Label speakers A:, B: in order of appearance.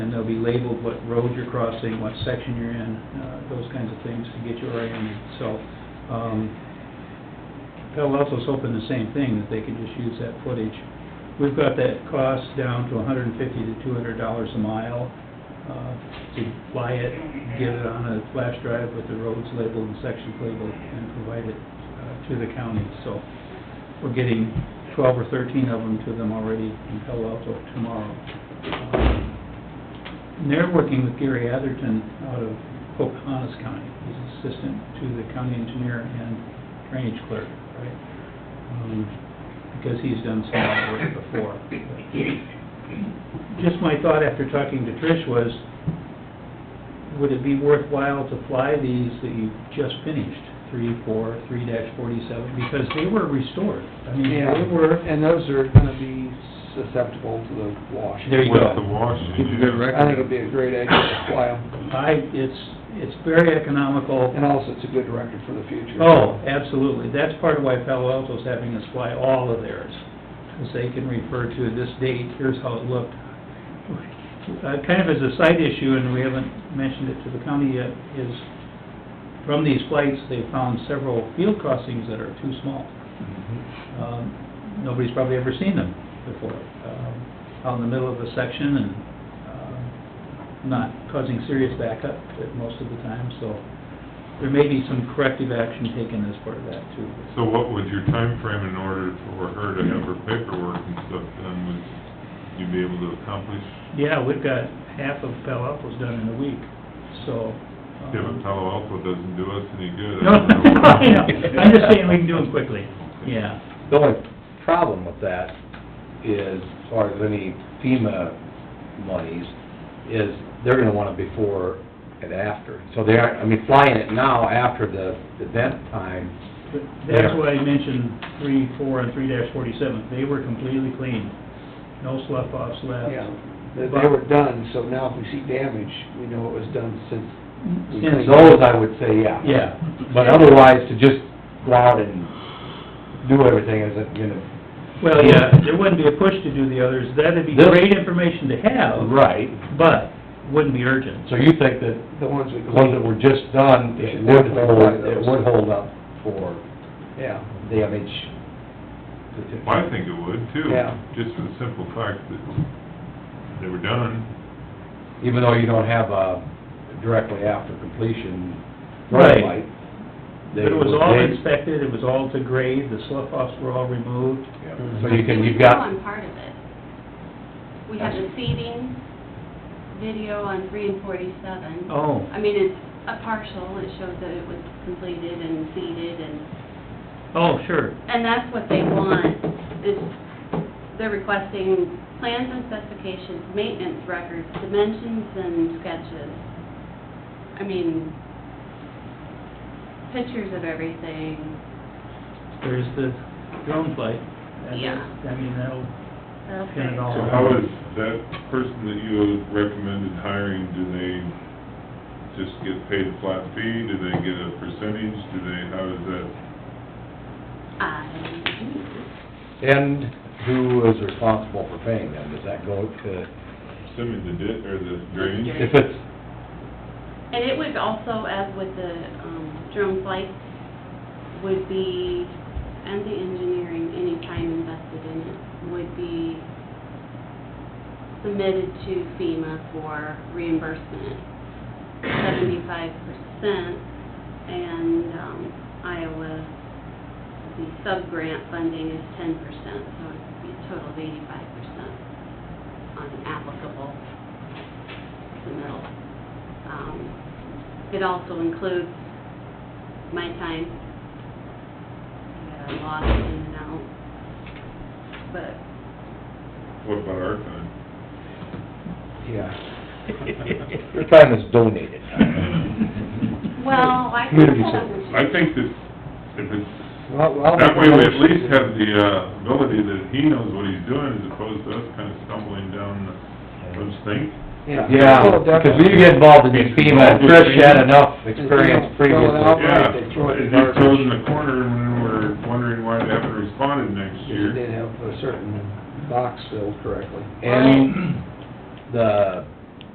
A: and they'll be labeled what road you're crossing, what section you're in, uh, those kinds of things to get you oriented. So, um, Palo Alto's hoping the same thing, that they can just use that footage. We've got that cost down to hundred and fifty to two hundred dollars a mile, uh, to fly it, get it on a flash drive with the roads labeled and sections labeled, and provide it, uh, to the county. So, we're getting twelve or thirteen of them to them already in Palo Alto tomorrow. Um, And they're working with Gary Atherton out of Pocahontas County. He's assistant to the county engineer and drainage clerk, right? Um, Because he's done some of that work before. Just my thought after talking to Trish was, would it be worthwhile to fly these that you just finished, three, four, three dash forty-seven? Because they were restored. I mean,
B: Yeah,
A: they were,
B: and those are gonna be susceptible to the wash.
A: There you go.
C: With the wash.
D: Keep a good record.
B: I think it'd be a great idea to fly 'em.
A: I, it's, it's very economical.
B: and also it's a good record for the future.
A: Oh, absolutely. That's part of why Palo Alto's having us fly all of theirs, because they can refer to this date, here's how it looked. Uh, Kind of as a side issue, and we haven't mentioned it to the county yet, is from these flights, they found several field crossings that are too small. Um, Nobody's probably ever seen them before, um, out in the middle of a section and um, not causing serious backup at most of the time, so there may be some corrective action taken as part of that too.
C: So what was your time frame in order for her to have her paperwork and stuff done? Would you be able to accomplish,
A: Yeah, we've got half of Palo Alto's done in a week, so. um,
C: if Palo Alto doesn't do us any good?
A: No,
C: I don't know.
A: I know. I'm just saying we can do them quickly, yeah.
D: The only problem with that is, as far as any FEMA monies, is they're gonna want it before and after. So they aren't, I mean, flying it now after the event time,
A: But That's why I mentioned three, four, and three dash forty-seven, they were completely clean, no slough offs left.
B: Yeah, they they were done, so now if we see damage, we know it was done since. we
A: Since-
B: cleaned it.
D: those I would say, yeah.
A: Yeah.
D: But otherwise, to just go out and do everything isn't gonna,
A: Well, yeah, there wouldn't be a push to do the others, that'd be
D: This-
A: great information to have,
D: right.
A: but wouldn't be urgent.
D: So you think that
B: The ones we
D: the ones that
B: cleaned,
D: were just done, it would hold, it would hold up for
B: yeah.
D: damage?
C: Well, I think it would too.
B: Yeah.
C: Just for the simple fact that they were done.
D: even though you don't have a directly after completion
A: Right.
D: red light. they
A: But it was
D: would-
A: all
D: they-
A: inspected, it was all to grade, the slough offs were all removed.
D: So you can,
E: We
D: you've got,
E: on part of it. We have the seeding video on three and forty-seven.
A: Oh.
E: I mean, it's a partial, it shows that it was completed and seeded and,
A: Oh, sure,
E: and that's what they want. Is they're requesting plans and specifications, maintenance records, dimensions and sketches. I mean, pictures of everything.
A: there's the drone flight. That is-
E: Yeah.
A: I mean, that'll, Pin it
E: Okay.
A: all.
C: So how is that person that you recommended hiring, do they just get paid a flat fee? Do they get a percentage? Do they, how is that?
E: I,
D: and who is responsible for paying them? Does that go to,
C: Assuming the di, or the drainage?
D: if it's,
E: And it would also, as with the um, drone flight, would be, and the engineering, any time invested in it, would be submitted to FEMA for reimbursement, seventy-five percent, and um, Iowa, the sub-grant funding is ten percent, so it'd be a total of eighty-five percent on an applicable submittal. Um, It also includes my time that I lost in and out, but
C: What about our time?
D: yeah. Your time is donated.
E: Well, I think
D: Community
E: that
D: service.
C: I think that if it's,
B: Well, I'll
C: that
B: make a
C: way we at
B: motion.
C: least have the uh, ability that he knows what he's doing as opposed to us kind of stumbling down those things.
D: Yeah,
B: Well,
D: because
B: definitely.
D: we get involved in these FEMA, and Trish had enough experience
B: Well,
D: previously.
B: now-
C: Yeah,
B: Outright, they
C: it
B: throw it in
C: just throws in the
B: garbage.
C: corner and then we're wondering why they haven't responded next
B: If you
C: year.
B: did have a certain box filled correctly.
D: And the